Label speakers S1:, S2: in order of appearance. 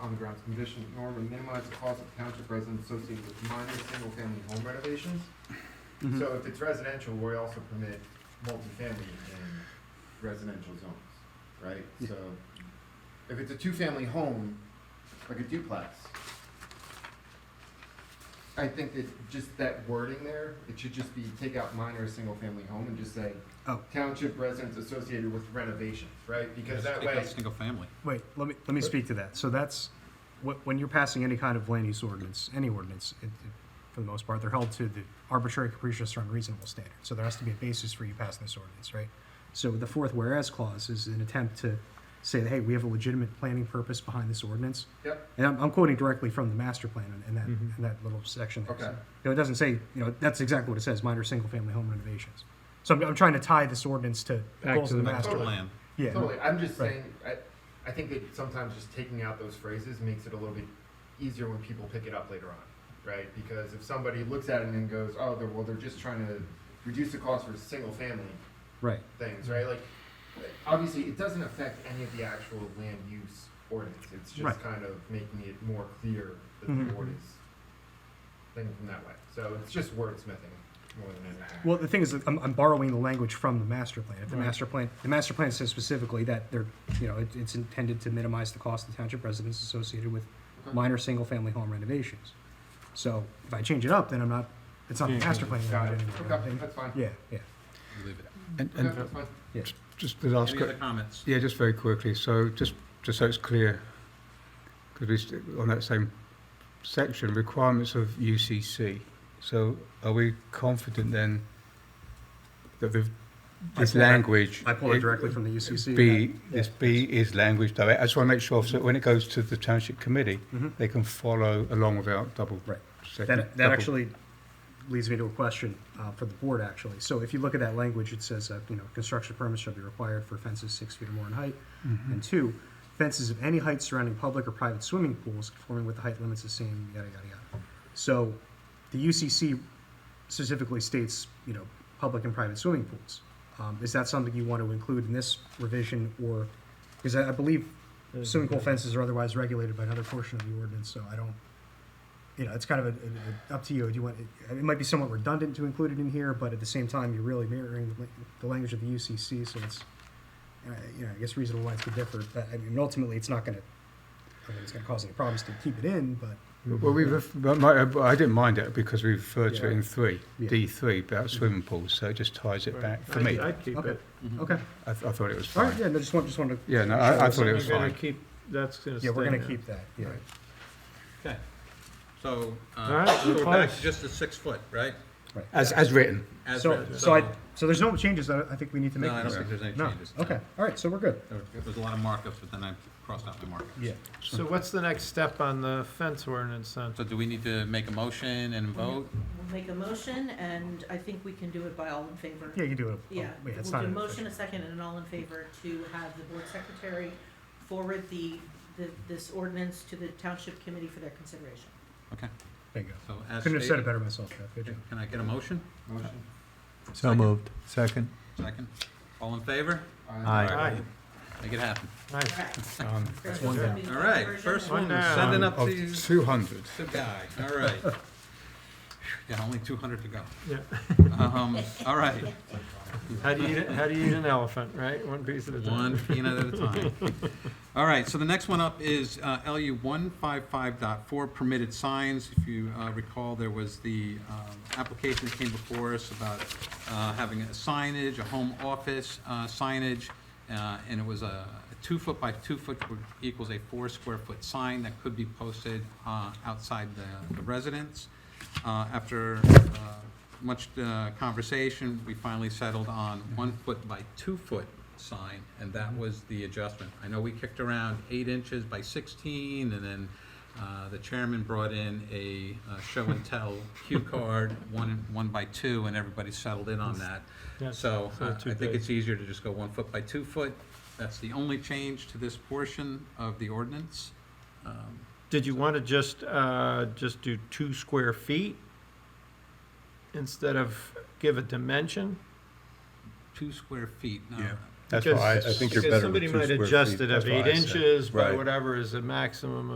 S1: common grounds condition, norm and minimize the cost of township residents associated with minor single-family home renovations.
S2: Mm-hmm.
S1: So if it's residential, we also permit multifamily in residential zones, right?
S2: Yeah.
S1: So if it's a two-family home, like a duplex, I think that just that wording there, it should just be take out minor single-family home and just say
S2: Oh.
S1: township residents associated with renovations, right? Because that way,
S3: Single family.
S2: Wait, let me, let me speak to that. So that's, wh- when you're passing any kind of land use ordinance, any ordinance, it- it- for the most part, they're held to the arbitrary, capricious, or unreasonable standard. So there has to be a basis for you passing this ordinance, right? So the fourth whereas clause is an attempt to say, hey, we have a legitimate planning purpose behind this ordinance.
S1: yep,
S2: And I'm, I'm quoting directly from the master plan in- in that,
S3: Mhm.
S2: in that little section. there.
S1: Okay.
S2: So, You know, it doesn't say, you know, that's exactly what it says, minor single-family home renovations. So I'm, I'm trying to tie this ordinance to the
S3: Back
S2: goals
S3: to
S2: of
S3: the
S2: the master.
S3: master
S1: Totally.
S3: plan.
S2: Yeah.
S1: totally. I'm just
S2: Right.
S1: saying, I, I think that sometimes just taking out those phrases makes it a little bit easier when people pick it up later on, right? Because if somebody looks at it and goes, oh, they're, well, they're just trying to reduce the cost for single-family
S2: Right.
S1: things, right? Like, obviously, it doesn't affect any of the actual land use ordinance. It's just
S2: Right.
S1: kind of making it more clear that the
S2: Mhm.
S1: board is thinking from that way. So it's just wordsmithing more than anything.
S2: Well, the thing is, that I'm, I'm borrowing the language from the master plan. If the
S1: Right.
S2: master plan, the master plan says specifically that they're, you know, it, it's intended to minimize the cost of township residents associated with
S1: Okay.
S2: minor single-family home renovations. So if I change it up, then I'm not, it's not the
S3: Yeah,
S2: master plan
S1: Got it.
S2: language anymore.
S1: Okay, that's fine.
S2: Yeah, yeah.
S3: Leave it.
S4: And,
S1: Okay,
S4: and
S1: that's fine.
S4: just the last,
S3: Any other
S4: que-
S3: comments?
S4: yeah, just very quickly, so just, just so it's clear, because we, st- on that same section, requirements of UCC. So are we confident then that the, this
S2: pulled that-
S4: language?
S2: I pull it directly from the UCC.
S4: B,
S2: yeah.
S4: this B is language direct, I just want to make sure, so when it goes to the township committee,
S2: Mhm.
S4: they can follow along without double.
S2: Right.
S4: second-
S2: That, that
S4: double-
S2: actually leads me to a question uh, for the board, actually. So if you look at that language, it says, uh, you know, construction permits shall be required for fences six feet or more in height.
S4: Mhm.
S2: And two, fences of any height surrounding public or private swimming pools conforming with the height limits the same, yada, yada, yada. So the UCC specifically states, you know, public and private swimming pools. Um, Is that something you want to include in this revision or, because I I believe swimming pool fences are otherwise regulated by another portion of the ordinance, so I don't, you know, it's kind of a, a- a- up to you. Do you want, it might be somewhat redundant to include it in here, but at the same time, you're really mirroring the la- the language of the UCC, so it's, uh, you know, I guess reasonable lines could differ, but I mean, ultimately, it's not gonna, I mean, it's gonna cause any problems to keep it in, but.
S4: Well, we, ref- but my, but I didn't mind it because we referred to it in three,
S2: Yeah.
S4: D three, about swimming pools, so it just ties it back, for me, I,
S5: I'd keep
S2: Okay.
S5: it.
S3: Mm-hmm.
S2: Okay,
S4: I thought it was
S2: all right,
S4: fine.
S2: Oh, yeah, no, just want, just wanted to.
S4: Yeah, no, I, I thought it was
S5: We're gonna
S4: fine.
S5: keep, that's gonna stay.
S2: Yeah, we're gonna
S5: there.
S2: keep that, yeah.
S5: Right.
S3: Okay. So,
S5: All
S3: uh,
S5: right,
S3: so we're back to
S5: close.
S3: just the six foot, right?
S4: As, as written,
S3: As
S2: So,
S3: written.
S2: so I, so there's no changes that I think we need to make.
S3: No, I
S2: to
S3: don't
S2: this.
S3: think there's any
S2: No.
S3: changes.
S2: Okay, all right, so we're good.
S3: There was a lot of markups, but then I crossed out the markups.
S2: Yeah.
S5: So what's the next step on the fence ordinance then?
S3: So do we need to make a motion and vote?
S6: We'll make a motion, and I think we can do it by all in favor.
S2: Yeah, you do it. Oh,
S6: Yeah,
S2: Wait,
S6: we'll
S2: it's
S6: do
S2: not.
S6: a
S2: an
S6: motion,
S2: official.
S6: a second, and an all in favor to have the board secretary forward the, the, this ordinance to the township committee for their consideration.
S2: Bingo.
S3: So
S2: Couldn't have
S3: as
S2: said it
S3: stated,
S2: better myself, Jeff, good job.
S3: can I get a motion?
S1: Motion?
S3: Second.
S7: Second.
S3: Second. All in favor?
S1: Aye.
S5: Aye.
S3: Make it happen.
S5: Aye.
S6: Correct.
S4: um,
S6: That's
S2: one down.
S3: All right, first
S5: One
S3: one,
S5: down.
S3: send it up
S2: Oh,
S4: of
S3: to
S4: two hundred.
S3: the guy. All right. Yeah, only two hundred to go.
S5: Yeah.
S3: Um, all right.
S5: How do you, eat- how do you eat an elephant, right? One piece at a time.
S3: One peanut at a time. All right, so the next one up is uh, LU 155.4 permitted signs. If you uh, recall, there was the um, application that came before us about uh, having a signage, a home office uh, signage, uh, and it was a two-foot by two-foot equals a four-square-foot sign that could be posted uh, outside the the residence. Uh, After uh, much uh, conversation, we finally settled on one-foot by two-foot sign, and that was the adjustment. I know we kicked around eight inches by sixteen, and then uh, the chairman brought in a uh, show and tell cue card, one, one by two, and everybody settled in on that.
S5: Yeah,
S3: So
S5: it's
S3: uh,
S5: not
S3: I
S5: too
S3: think
S5: big.
S3: it's easier to just go one foot by two foot. That's the only change to this portion of the ordinance. Um,
S5: Did you want to just, uh, just do two square feet instead of give a dimension?
S3: Two square feet, no.
S4: Yeah. That's why I I think you're
S5: Because
S4: better with two
S5: somebody
S4: square
S5: might
S4: feet.
S5: adjust it
S4: That's
S5: of
S4: why I
S5: eight
S4: said-
S5: inches by
S4: Right.
S5: whatever is the maximum